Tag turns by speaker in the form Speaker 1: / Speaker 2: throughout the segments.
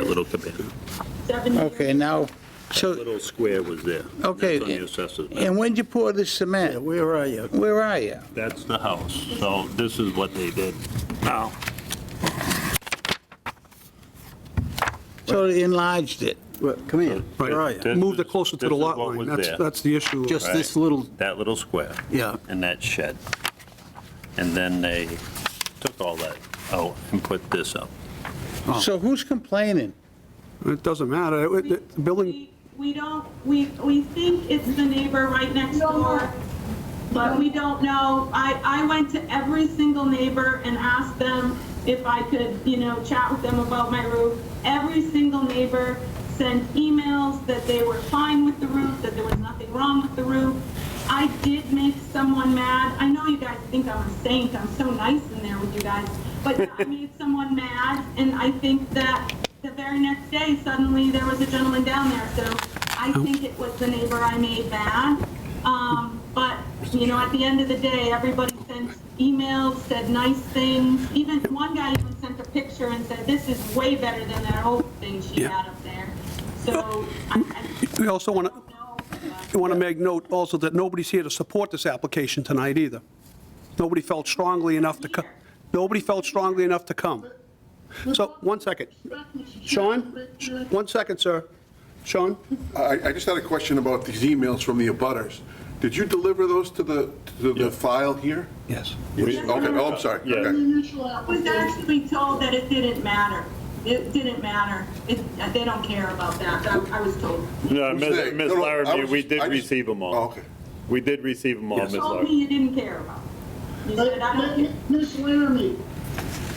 Speaker 1: little cabana,
Speaker 2: Seven
Speaker 3: Okay, now, so,
Speaker 1: little square was there.
Speaker 3: Okay.
Speaker 1: That's on the assessor's map.
Speaker 3: and when'd you pour the cement?
Speaker 4: Where are you?
Speaker 3: Where are you?
Speaker 1: That's the house, so this is what they did. Now,
Speaker 3: So they enlarged it.
Speaker 4: What- Come here. Where are
Speaker 1: Right.
Speaker 4: you?
Speaker 5: Moved it closer to
Speaker 1: This
Speaker 5: the
Speaker 1: is
Speaker 5: lot
Speaker 1: what was
Speaker 5: line. That's,
Speaker 1: there.
Speaker 5: that's the issue.
Speaker 4: Just this
Speaker 1: Right.
Speaker 4: little,
Speaker 1: that little square
Speaker 4: yeah,
Speaker 1: and that shed. And then they took all that out and put this up.
Speaker 4: Oh.
Speaker 3: So who's complaining?
Speaker 5: It doesn't matter. It- it- The building,
Speaker 2: We- We don't, we, we think it's the neighbor right next door, but we don't know. I, I went to every single neighbor and asked them if I could, you know, chat with them about my roof. Every single neighbor sent emails that they were fine with the roof, that there was nothing wrong with the roof. I did make someone mad. I know you guys think I'm a saint, I'm so nice in there with you guys, but I made someone mad, and I think that the very next day, suddenly there was a gentleman down there, so I think it was the neighbor I made mad. Um, but, you know, at the end of the day, everybody sent emails, said nice things. Even one guy even sent a picture and said, this is way better than that old thing she had up there. So I, I
Speaker 5: we also want
Speaker 2: don't
Speaker 5: to,
Speaker 2: know.
Speaker 5: we want to make note also that nobody's here to support this application tonight either. Nobody felt strongly enough to, co- nobody felt strongly enough to come. So, one second. Sean? One second, sir. Sean?
Speaker 6: I, I just had a question about these emails from the abutters. Did you deliver those to the, to the file here?
Speaker 5: Yes.
Speaker 6: Okay, oh, I'm sorry. Okay.
Speaker 2: I was actually told that it didn't matter. It didn't matter. It, they don't care about that. I I was told.
Speaker 7: No,
Speaker 6: Who's they?
Speaker 7: Ms. Ms.
Speaker 6: No, no, I
Speaker 7: Larrabee,
Speaker 6: was
Speaker 7: we
Speaker 6: just-
Speaker 7: did
Speaker 6: I just-
Speaker 7: receive them all.
Speaker 6: Oh, okay.
Speaker 7: We did receive them all, Ms.
Speaker 2: told
Speaker 7: Larrabee.
Speaker 2: me you didn't care about it. You said, I don't care.
Speaker 8: Miss Laramie,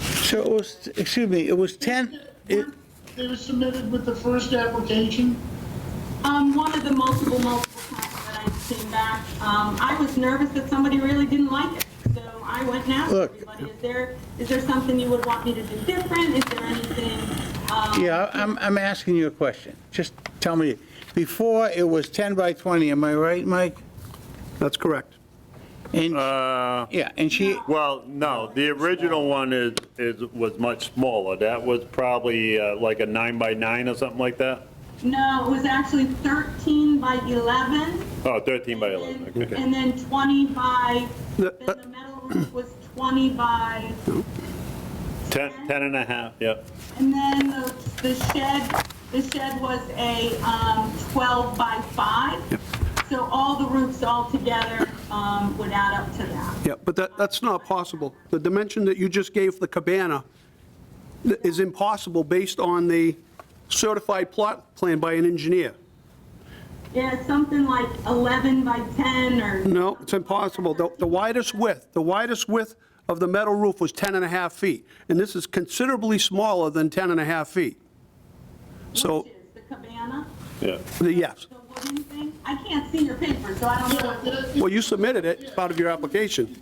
Speaker 3: So it was, excuse me, it was 10, it,
Speaker 8: they were submitted with the first application.
Speaker 2: Um, one of the multiple, multiple times that I came back, um, I was nervous that somebody really didn't like it. So I went and asked
Speaker 3: Look.
Speaker 2: everybody, is there, is there something you would want me to do different? Is there anything, um,
Speaker 3: yeah, I'm, I'm asking you a question. Just tell me, before it was 10 by 20, am I right, Mike?
Speaker 5: That's correct.
Speaker 3: And,
Speaker 1: Uh,
Speaker 3: yeah, and she,
Speaker 7: Uh, Well, no, the original one is, is, was much smaller. That was probably uh, like a nine by nine or something like that.
Speaker 2: no, it was actually 13 by 11.
Speaker 7: Oh, 13 by 11,
Speaker 2: and-
Speaker 7: okay.
Speaker 2: And then 20 by, then
Speaker 5: The-
Speaker 2: the metal roof was 20 by
Speaker 7: 10, 10 and a half, yep.
Speaker 2: And then the the shed, the shed was a um, 12 by 5. So all the roofs all together um, would add up to that.
Speaker 5: Yeah, but that, that's not possible. The dimension that you just gave the cabana th- is impossible based on the certified plot plan by an engineer.
Speaker 2: Yeah, something like 11 by 10 or,
Speaker 5: No, it's impossible. The the widest width, the widest width of the metal roof was 10 and a half feet, and this is considerably smaller than 10 and a half feet. So,
Speaker 2: which is the cabana,
Speaker 7: Yeah.
Speaker 5: the- yes.
Speaker 2: the wooden thing. I can't see your paper, so I don't know.
Speaker 5: Well, you submitted it, it's part of your application.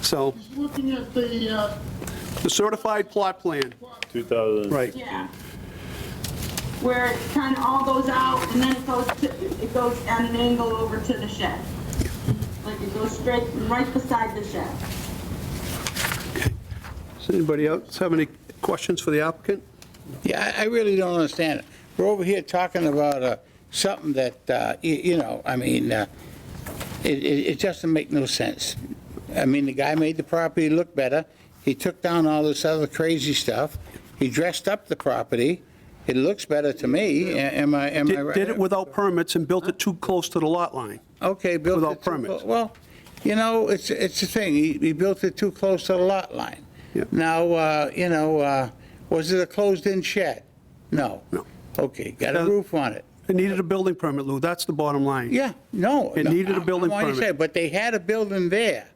Speaker 5: So,
Speaker 8: Looking at the, uh,
Speaker 5: the certified plot plan,
Speaker 7: 2000.
Speaker 5: right.
Speaker 2: Yeah. Where it kind of all goes out and then it goes to, it goes at an angle over to the shed. Like it goes straight, right beside the shed.
Speaker 5: Does anybody else have any questions for the applicant?
Speaker 3: yeah, I I really don't understand it. We're over here talking about uh, something that, uh, you you know, I mean, uh, it, it it just doesn't make no sense. I mean, the guy made the property look better. He took down all this other crazy stuff. He dressed up the property. It looks better to me. A- Am I, am I
Speaker 5: Did
Speaker 3: right?
Speaker 5: did it without permits and built it too close to the lot line.
Speaker 3: Okay, built it.
Speaker 5: without
Speaker 3: too
Speaker 5: permits.
Speaker 3: clo- Well, you know, it's, it's the thing. He, he built it too close to the lot line.
Speaker 5: Yeah.
Speaker 3: Now, uh, you know, uh, was it a closed-in shed? No.
Speaker 5: No.
Speaker 3: Okay, got a
Speaker 5: Uh,
Speaker 3: roof on it.
Speaker 5: It needed a building permit, Lou, that's the bottom line.
Speaker 3: Yeah, no.
Speaker 5: It
Speaker 3: no,
Speaker 5: needed a
Speaker 3: I'm- I'm
Speaker 5: building
Speaker 3: already
Speaker 5: permit.
Speaker 3: saying, But they had a building there.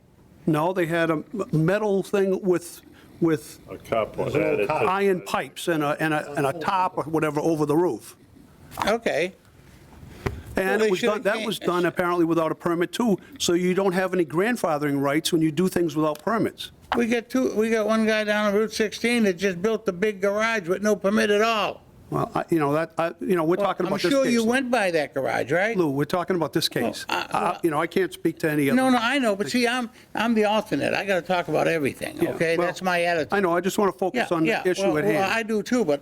Speaker 5: No, they had a metal thing with, with
Speaker 7: A carport. added to-
Speaker 5: iron pipes and a, and a, and a top or whatever over the roof.
Speaker 3: Okay. Well,
Speaker 5: And
Speaker 3: they
Speaker 5: it was
Speaker 3: should've
Speaker 5: done, that was
Speaker 3: came-
Speaker 5: done apparently without a permit too, so you don't have any grandfathering rights when you do things without permits.
Speaker 3: We got two, we got one guy down on Route 16 that just built the big garage with no permit at all.
Speaker 5: Well, I- you know, that, I, you know, we're talking
Speaker 3: I'm
Speaker 5: about this
Speaker 3: sure you
Speaker 5: case.
Speaker 3: went by that garage, right?
Speaker 5: Lou, we're talking about this case.
Speaker 3: Well, I-
Speaker 5: I- You know, I can't speak to any other.
Speaker 3: No, no, I know, but see, I'm, I'm the alternate. I got to talk about everything,
Speaker 5: Yeah,
Speaker 3: okay?
Speaker 5: well,
Speaker 3: That's my attitude.
Speaker 5: I know, I just want to focus on the issue
Speaker 3: well,
Speaker 5: at
Speaker 3: Well,
Speaker 5: hand.
Speaker 3: I do too, but